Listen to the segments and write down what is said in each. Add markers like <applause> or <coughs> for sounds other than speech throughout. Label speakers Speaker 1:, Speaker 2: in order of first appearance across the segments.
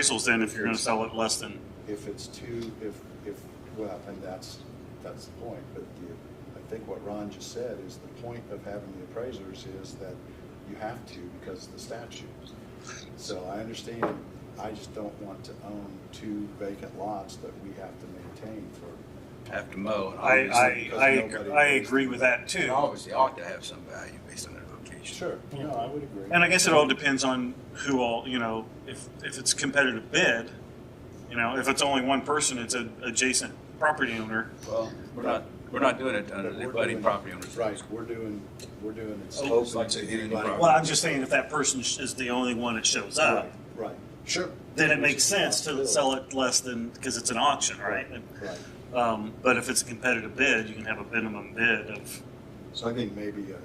Speaker 1: appraisals then if you're gonna sell it less than,
Speaker 2: If it's too, if, if, well, and that's, that's the point, but the, I think what Ron just said is the point of having the appraisers is that you have to because of the statute. So I understand, I just don't want to own two vacant lots that we have to maintain for,
Speaker 3: have to mow. and
Speaker 1: I, I,
Speaker 3: obviously-
Speaker 1: I, I agree with that
Speaker 3: It
Speaker 1: too.
Speaker 3: obviously ought to have some value based on their location.
Speaker 2: sure, no, I would agree.
Speaker 1: And I guess it all depends on who all, you know, if, if it's competitive bid, you know, if it's only one person, it's an adjacent property owner.
Speaker 3: Well, we're not, we're not doing it under
Speaker 2: But
Speaker 3: the
Speaker 2: we're
Speaker 3: budding
Speaker 2: doing-
Speaker 3: property owners.
Speaker 2: Right, we're doing, we're doing it.
Speaker 3: Open
Speaker 2: so-
Speaker 3: to any
Speaker 2: anybody-
Speaker 3: property.
Speaker 1: Well, I'm just saying if that person sh- is the only one that shows up,
Speaker 2: Right, Right, sure.
Speaker 1: then it makes sense to sell it less than, because it's an auction, right?
Speaker 2: Right.
Speaker 1: Um, but if it's a competitive bid, you can have a minimum bid of
Speaker 2: So I think maybe, uh,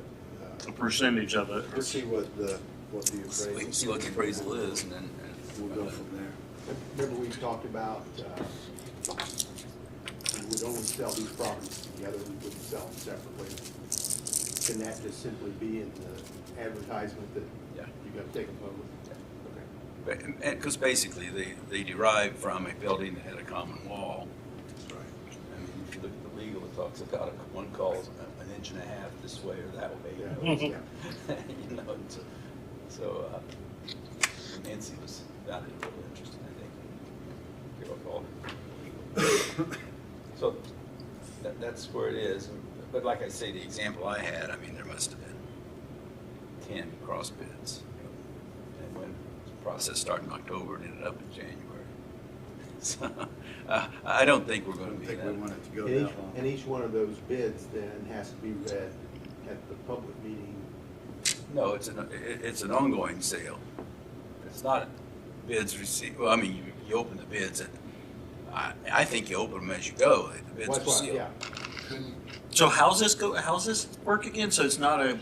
Speaker 2: uh,
Speaker 1: a percentage of
Speaker 2: Let's see
Speaker 1: it.
Speaker 2: what the, what the appraisal.
Speaker 3: We can see what the appraisal is and then. and-
Speaker 2: We'll go from there.
Speaker 4: Remember we talked about, uh, we would only sell these properties together, we wouldn't sell them separately. Can that just simply be in the advertisement that
Speaker 3: Yeah.
Speaker 4: you gotta take a vote? Okay.
Speaker 3: But, and, because basically they, they derive from a building that had a common wall.
Speaker 2: Right.
Speaker 3: I mean, if you look at the legal, it talks about a- one calls a- an inch and a half this way or that way. <laughs> you know,
Speaker 4: Yeah,
Speaker 3: You know, and so, so, uh, Nancy was, found it really interesting, I think. Carol called
Speaker 4: <coughs>
Speaker 3: it. So that, that's where it is. But like I say, the example I had, I mean, there must have been ten cross bids. And when the process started in October and ended up in January. <laughs> So, uh, I don't think we're
Speaker 2: I
Speaker 3: gonna
Speaker 2: don't
Speaker 3: be
Speaker 2: think we
Speaker 3: that.
Speaker 2: want it to go
Speaker 4: And
Speaker 2: that
Speaker 4: each, and
Speaker 2: long.
Speaker 4: each one of those bids then has to be read at the public meeting.
Speaker 3: No, it's an, it- it's an ongoing sale. It's not bids received, well, I mean, you, you open the bids and I, I think you open them as you go. The bids
Speaker 4: What's
Speaker 3: are
Speaker 4: what?
Speaker 3: sealed.
Speaker 4: Yeah,
Speaker 1: So how's this go, how's this work again? So it's not a,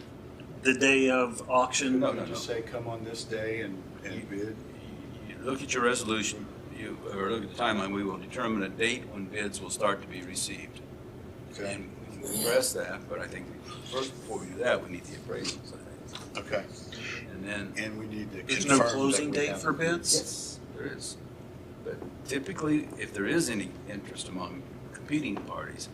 Speaker 1: the day of auction?
Speaker 3: No,
Speaker 2: Couldn't
Speaker 3: no,
Speaker 2: we
Speaker 3: no.
Speaker 2: Just say, come on this day and, and bid.
Speaker 3: You look at your resolution, you, or look at the timeline, we will determine a date when bids will start to be received.
Speaker 2: Okay.
Speaker 3: And we can address that, but I think first before we do that, we need the appraisals, I
Speaker 2: Okay.
Speaker 3: think. And then,
Speaker 2: And we need to.
Speaker 1: There's no
Speaker 2: confirm that
Speaker 1: closing
Speaker 2: we
Speaker 1: date
Speaker 2: have-
Speaker 1: for bids?
Speaker 3: yes, there is. But typically, if there is any interest among competing parties,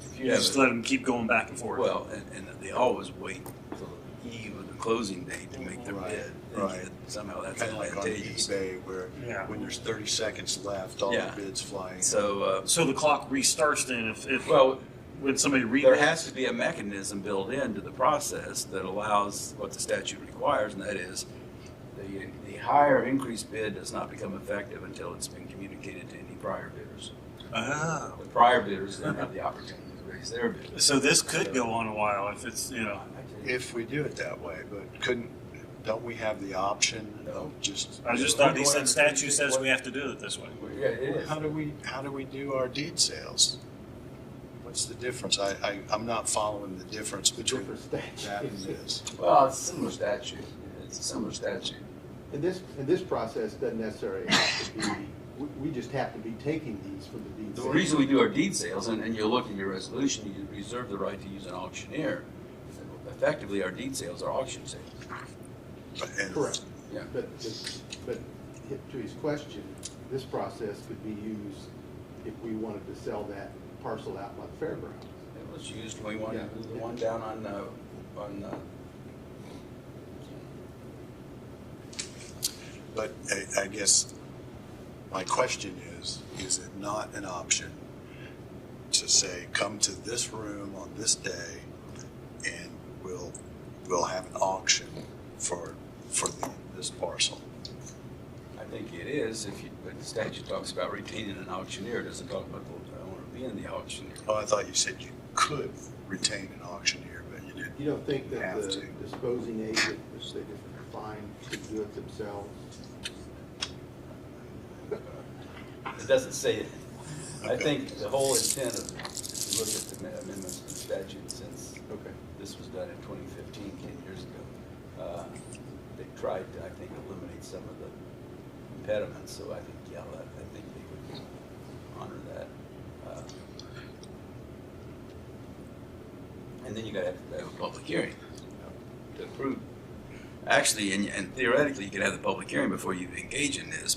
Speaker 3: if you
Speaker 1: You
Speaker 3: have.
Speaker 1: just
Speaker 3: a-
Speaker 1: let them keep going back and forth.
Speaker 3: Well, and, and they always wait till the eve of the closing date to make their
Speaker 2: Right,
Speaker 3: bid. and
Speaker 2: right.
Speaker 3: yet Somehow that's
Speaker 2: Kind of like on
Speaker 3: advantageous.
Speaker 2: eBay where,
Speaker 1: Yeah.
Speaker 2: when there's thirty seconds left, all the
Speaker 3: Yeah.
Speaker 2: bids flying.
Speaker 3: So, uh,
Speaker 1: So the clock restarts then if, if
Speaker 3: well,
Speaker 1: when somebody reads
Speaker 3: there has to be a mechanism built into the process that allows what the statute requires, and that is the, the higher increased bid does not become effective until it's been communicated to any prior bidders.
Speaker 1: Oh.
Speaker 3: The prior bidders then have the opportunity to raise their bid.
Speaker 1: So this could go on a while if it's you know.
Speaker 2: If we do it that way, but couldn't, don't we have the option of just?
Speaker 1: I just thought he said statute says we have to do it this way.
Speaker 3: Yeah, it is.
Speaker 2: How do we, how do we do our deed sales? What's the difference? I, I, I'm not following the difference between
Speaker 4: different
Speaker 2: that and
Speaker 4: statutes.
Speaker 2: this.
Speaker 3: Well, it's a similar statute. It's a similar statute.
Speaker 4: And this, and this process doesn't necessarily have to be, we, we just have to be taking these for the deed.
Speaker 3: The
Speaker 4: sale.
Speaker 3: reason we do our deed sales, and, and you look at your resolution, you reserve the right to use an auctioneer. Effectively, our deed sales are auction sales.
Speaker 2: And-
Speaker 4: Correct.
Speaker 3: Yeah.
Speaker 4: But, but- but if- to his question, this process could be used if we wanted to sell that parcel out by the fairgrounds.
Speaker 3: It was used when we wanted,
Speaker 4: Yeah.
Speaker 3: the one down on, uh, on, uh,
Speaker 2: But I, I guess my question is, is it not an option to say, come to this room on this day and we'll, we'll have an auction for, for the- this parcel?
Speaker 3: I think it is, if you, but the statute talks about retaining an auctioneer, it doesn't talk about the owner being the auctioneer.
Speaker 2: Oh, I thought you said you could retain an auctioneer, but you didn't.
Speaker 4: You don't think that
Speaker 2: Have
Speaker 4: the
Speaker 2: to.
Speaker 4: disposing agent, which they just find, could do it themselves?
Speaker 3: It doesn't say it. I think the whole intent of, if you look at the amendments to the statute since
Speaker 4: Okay.
Speaker 3: This was done in 2015, 10 years ago. Uh, They tried to, I think, eliminate some of the impediments, so I think, yeah, that- I think they would honor that. Uh, And then you gotta have to have a public hearing to approve. Actually, and- and theoretically, you could have the public hearing before you engage in this,